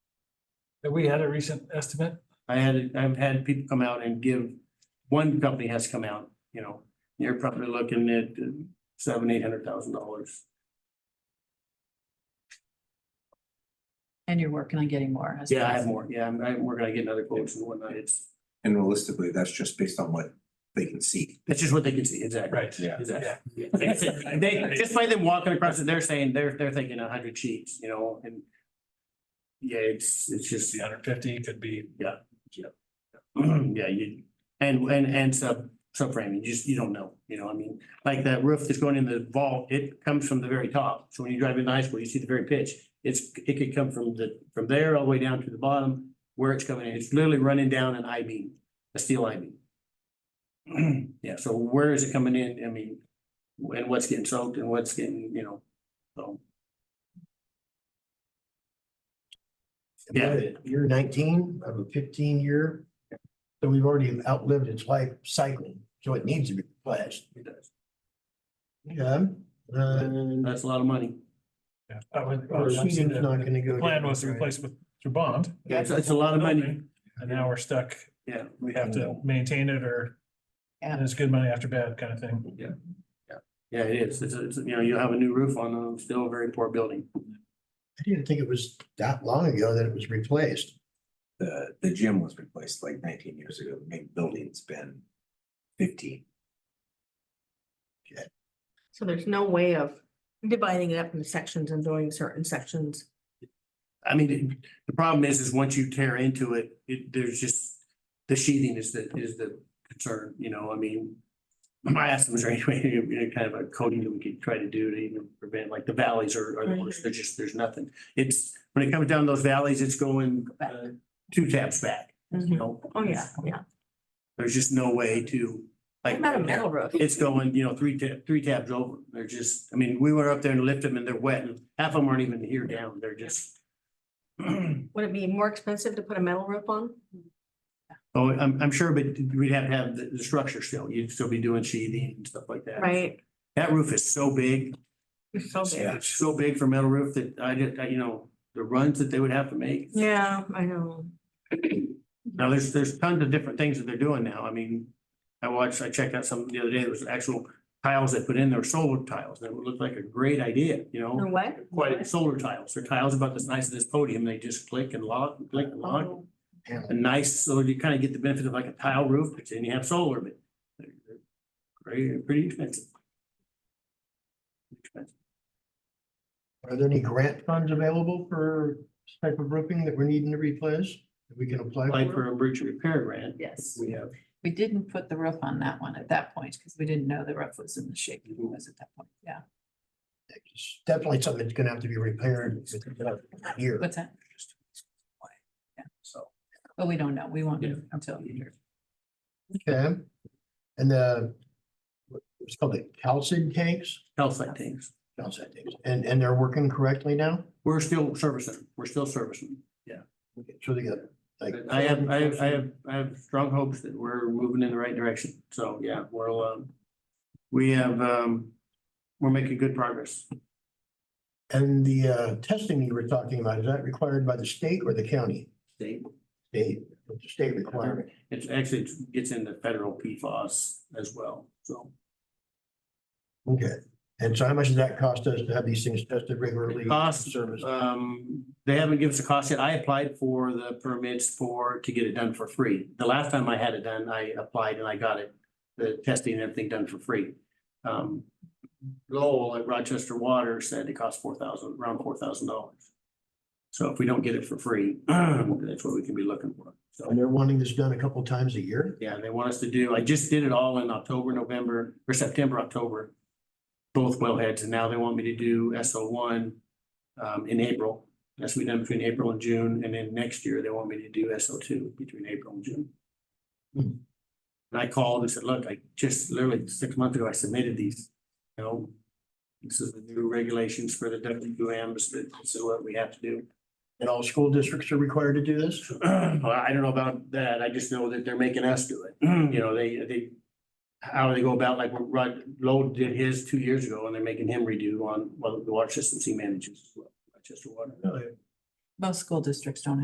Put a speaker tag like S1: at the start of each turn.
S1: That we had a recent estimate?
S2: I had, I've had people come out and give, one company has come out, you know, you're probably looking at seven, eight hundred thousand dollars.
S3: And you're working on getting more. as
S2: Yeah, I
S3: well.
S2: have more, yeah, I'm, I'm working on getting other quotes and whatnot, it's,
S4: And realistically, that's just based on what they can see.
S2: that's just what they can see, exactly.
S1: Right.
S4: Yeah.
S2: Exactly. Yeah, like I said, They, just by them walking across it, they're saying, they're, they're thinking a hundred sheets, you know, and yeah, it's, it's just,
S1: Just the hundred fifty could be,
S2: yeah, you, and, and, and sub, subframe, you just, you don't know, you know, I mean, like that roof that's going in the vault, it comes from the very top. So when you drive into high school, you see the very pitch. It's, it could come from the, from there all the way down to the bottom where it's coming in. It's literally running down an I beam, a steel I beam. Yeah, so where is it coming in? I mean, and what's getting soaked and what's getting, you know, so. Yeah.
S5: Year nineteen of a fifteen year. So we've already outlived its life cycle, so it needs to be replaced.
S2: it does.
S5: Yeah.
S1: uh,
S5: And
S2: That's a lot of money.
S1: that was.
S5: Sweden's not gonna go.
S1: Plan was to replace with, through bond,
S2: That's, that's a lot of money.
S1: and now we're stuck,
S2: Yeah.
S1: we have to maintain it or.
S3: Yeah.
S1: And it's good money after bad kind of thing.
S2: Yeah, it is. It's, it's, you know, you'll have a new roof on a still very poor building.
S5: I didn't think it was that long ago that it was replaced.
S4: The, the gym was replaced like nineteen years ago. The main building's been fifteen.
S6: So there's no way of dividing it up into sections and doing certain sections.
S2: I mean, it- the problem is, is once you tear into it, it, there's just, the sheathing is the, is the concern, you know, I mean. I asked them, is there any way, you know, kind of a coating that we could try to do to even prevent, like the valleys are, are the worst, there's just, there's nothing. It's, when it comes down those valleys, it's going, uh, two taps back, you know?
S6: Oh, yeah, yeah.
S2: There's just no way to, like.
S6: What about a metal roof?
S2: It's going, you know, three ta- three tabs over. They're just, I mean, we were up there and lifted them and they're wet and half of them aren't even here down. They're just. Oh,
S6: Would it be more expensive to put a metal roof on?
S2: Oh, I'm, I'm sure, but we'd have to have the, the structure still. You'd still be doing sheathing and stuff like that.
S6: Right?
S2: That roof is so big,
S6: So big.
S4: Yeah.
S2: it's so big for metal roof that I just, I- you know, the runs that they would have to make.
S6: Yeah, I know.
S2: Now, there's, there's tons of different things that they're doing now. I mean, I watched, I checked out some the other day. There was actual tiles that put in there, solar tiles. That would look like a great idea, you know?
S6: Or what?
S2: quite a solar tiles. They're tiles about the size of this podium. They just click and lock, and click and lock.
S6: Oh,
S2: And nice, so you kind of get the benefit of like a tile roof, but then you have solar, but they're they're pretty, pretty expensive. Expensive.
S5: Are there any grant funds available for this type of roofing that we're needing to replace? That we can apply
S2: Applied
S5: for?
S2: for a bridge repair grant.
S3: Yes,
S2: We have,
S3: we didn't put the roof on that one at that point because we didn't know the roof was in the shape it was at that point. Yeah,
S5: It's Definitely something that's gonna have to be repaired here.
S3: what's that?
S2: so.
S3: But we don't know. We won't know until you hear.
S5: Okay. And the, what- it's called the calcid tanks,
S2: Calcite tanks.
S5: calcite tanks, and, and they're working correctly now?
S2: We're still servicing, we're still servicing.
S5: Okay, So they got like.
S2: But I have, I have, I have, I have strong hopes that we're moving in the right direction. So, yeah, we'll, um, we have, um, we're making good progress.
S5: And the uh, testing you were talking about, is that required by the state or the county?
S2: State
S5: State, it's a state requirement.
S2: It's actually, it's- it's in the federal PFAS as well, so.
S5: Okay. And so how much does that cost us to have these things tested regularly?
S2: It costs,
S5: Service.
S2: um, they haven't given us a cost yet. I applied for the permits for, to get it done for free. The last time I had it done, I applied and I got it, the testing and everything done for free. Um, Lowell at Rochester Water said it costs four thousand, around four thousand dollars. So if we don't get it for free, that's what we can be looking for, so.
S5: And they're wanting this done a couple times a year?
S2: Yeah, they want us to do, I just did it all in October, November, or September, October. Both wellheads, and now they want me to do S O one um in April. That's what we done between April and June, and then next year they want me to do S O two between April and June.
S5: Hmm.
S2: And I called and said, look, I just literally six months ago, I submitted these, you know. This is the new regulations for the W M's, but this is what we have to do.
S5: And all school districts are required to do this?
S2: Well, I don't know about that. I just know that they're making us do it. You know, they, they. How do they go about, like, Rod Lowe did his two years ago and they're making him redo on, well, the water systems he manages, as well, Rochester Water.
S3: Most school districts don't